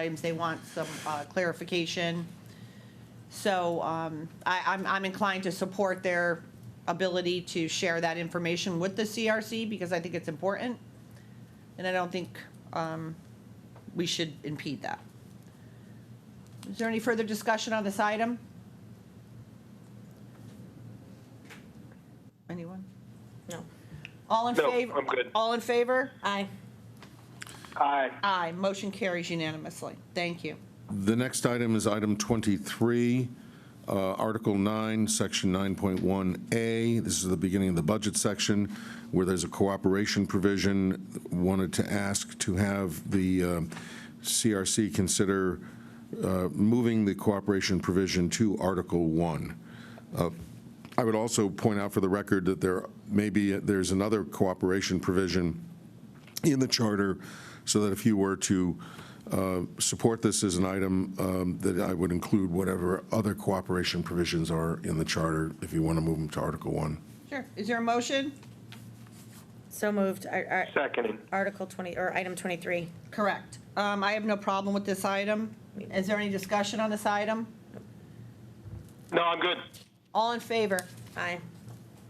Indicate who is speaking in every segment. Speaker 1: items, they want some uh, clarification. So um, I, I'm, I'm inclined to support their ability to share that information with the CRC because I think it's important. And I don't think um, we should impede that. Is there any further discussion on this item? Anyone?
Speaker 2: No.
Speaker 1: All in
Speaker 3: No,
Speaker 1: favor?
Speaker 3: I'm good.
Speaker 1: All in favor?
Speaker 2: Aye.
Speaker 3: Aye.
Speaker 1: Aye, motion carries unanimously. Thank you.
Speaker 4: The next item is item 23, uh, Article 9, Section 9.1A. This is the beginning of the budget section where there's a cooperation provision. Wanted to ask to have the uh, CRC consider uh, moving the cooperation provision to Article 1. I would also point out for the record that there may be, there's another cooperation provision in the charter, so that if you were to uh, support this as an item, um, that I would include whatever other cooperation provisions are in the charter, if you want to move them to Article 1.
Speaker 1: Sure, is there a motion?
Speaker 2: So moved. Ar- ar-
Speaker 3: Seconding.
Speaker 2: Article 20, or item 23.
Speaker 1: Correct. Um, I have no problem with this item. Is there any discussion on this item?
Speaker 3: No, I'm good.
Speaker 1: All in favor?
Speaker 2: Aye.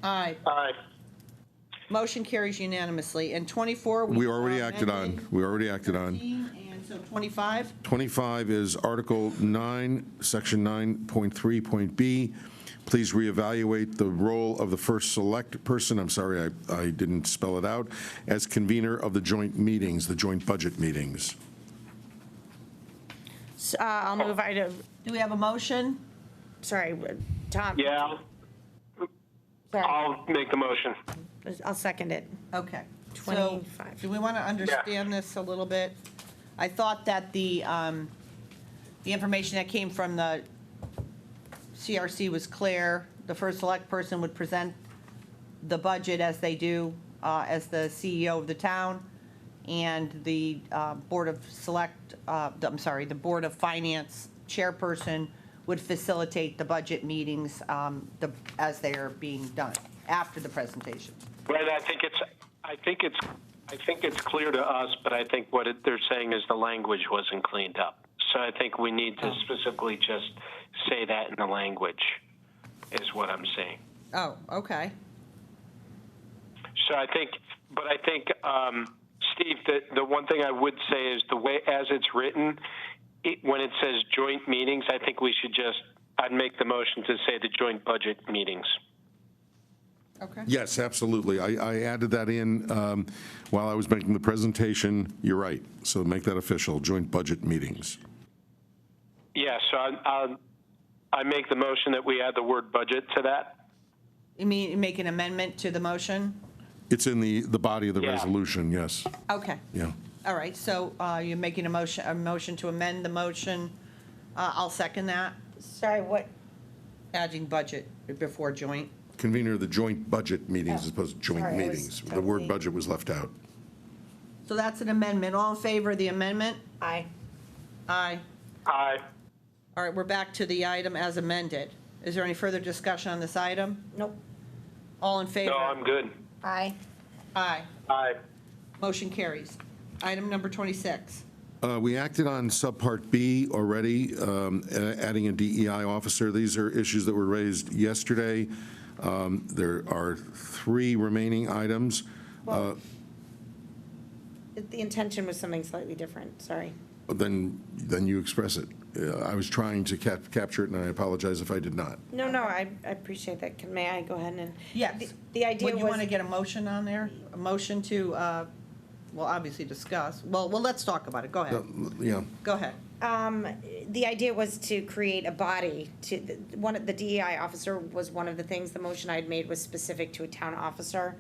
Speaker 1: Aye.
Speaker 3: Aye.
Speaker 1: Motion carries unanimously. And 24, we...
Speaker 4: We already
Speaker 1: are
Speaker 4: acted on,
Speaker 1: amending
Speaker 4: we already acted on.
Speaker 1: 13, And so 25,
Speaker 4: 25 is Article 9, Section 9.3, point B. Please reevaluate the role of the first select person, I'm sorry, I I didn't spell it out, as convener of the joint meetings, the joint budget meetings.
Speaker 2: S- uh, I'll move item,
Speaker 1: do we have a motion?
Speaker 2: sorry, uh, Tom.
Speaker 3: Yeah,
Speaker 2: Sorry.
Speaker 3: I'll make the motion.
Speaker 2: I'll second it.
Speaker 1: Okay. So,
Speaker 2: 25.
Speaker 1: Do we want to understand this a little bit? I thought that the, um, the information that came from the CRC was clear. The first select person would present the budget as they do, uh, as the CEO of the town. And the uh, Board of Select, uh, I'm sorry, the Board of Finance chairperson would facilitate the budget meetings um, the- as they are being done, after the presentation.
Speaker 3: Right, I think it's, I think it's, I think it's clear to us, but I think what it- they're saying is the language wasn't cleaned up. So I think we need to specifically just say that in the language, is what I'm saying.
Speaker 1: Oh, okay.
Speaker 3: So I think, but I think, um, Steve, the, the one thing I would say is the way, as it's written, it, when it says joint meetings, I think we should just, I'd make the motion to say the joint budget meetings.
Speaker 1: Okay.
Speaker 4: Yes, absolutely. I, I added that in um, while I was making the presentation. You're right. So make that official, joint budget meetings.
Speaker 3: Yeah, so I, I, I make the motion that we add the word budget to that.
Speaker 1: You mean, make an amendment to the motion?
Speaker 4: It's in the, the body of the
Speaker 3: Yeah.
Speaker 4: resolution, yes.
Speaker 1: Okay,
Speaker 4: Yeah.
Speaker 1: all right, so uh, you're making a motion, a motion to amend the motion. Uh, I'll second that,
Speaker 2: Sorry, what,
Speaker 1: adding budget before joint.
Speaker 4: Convener of the joint budget meetings
Speaker 2: Oh,
Speaker 4: as opposed to joint
Speaker 2: sorry, I was
Speaker 4: meetings. The word
Speaker 2: totally-
Speaker 4: budget was left out.
Speaker 1: So that's an amendment. All in favor of the amendment?
Speaker 2: aye.
Speaker 1: Aye.
Speaker 3: Aye.
Speaker 1: All right, we're back to the item as amended. Is there any further discussion on this item?
Speaker 2: Nope.
Speaker 1: All in favor?
Speaker 3: No, I'm good.
Speaker 2: Aye.
Speaker 1: Aye.
Speaker 3: Aye.
Speaker 1: Motion carries. Item number 26.
Speaker 4: Uh, We acted on subpart B already, um, a- adding a DEI officer. These are issues that were raised yesterday. Um, There are three remaining items. Uh,
Speaker 2: The intention was something slightly different, sorry.
Speaker 4: Then, then you express it. Uh, I was trying to cap- capture it, and I apologize if I did not.
Speaker 2: No, no, I I appreciate that. Can- May I go ahead and?
Speaker 1: Yes.
Speaker 2: The- The idea
Speaker 1: Would you want to
Speaker 2: was,
Speaker 1: get a motion on there? A motion to, uh, well, obviously discuss. Well, well, let's talk about it. Go ahead.
Speaker 4: Yeah,
Speaker 1: Go ahead.
Speaker 2: the idea was to create a body to, the- one, of the DEI officer was one of the things, the motion I had made was specific to a town officer.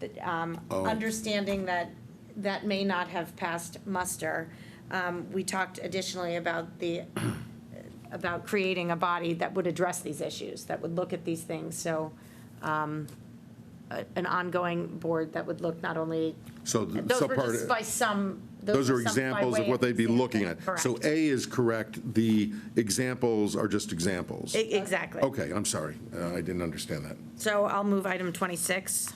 Speaker 2: That, um,
Speaker 4: Oh.
Speaker 2: Understanding that that may not have passed muster. Um, We talked additionally about the about creating a body that would address these issues, that would look at these things. So um, a- an ongoing board that would look not only,
Speaker 4: so the
Speaker 2: those were
Speaker 4: subpart,
Speaker 2: just by some.
Speaker 4: those are
Speaker 2: were some by
Speaker 4: examples of
Speaker 2: way
Speaker 4: what they'd be looking at.
Speaker 2: example.
Speaker 4: So
Speaker 2: Correct.
Speaker 4: A is correct, the examples are just examples.
Speaker 2: E- Exactly.
Speaker 4: Okay, I'm sorry, Uh, I didn't understand that.
Speaker 2: So I'll move item 26.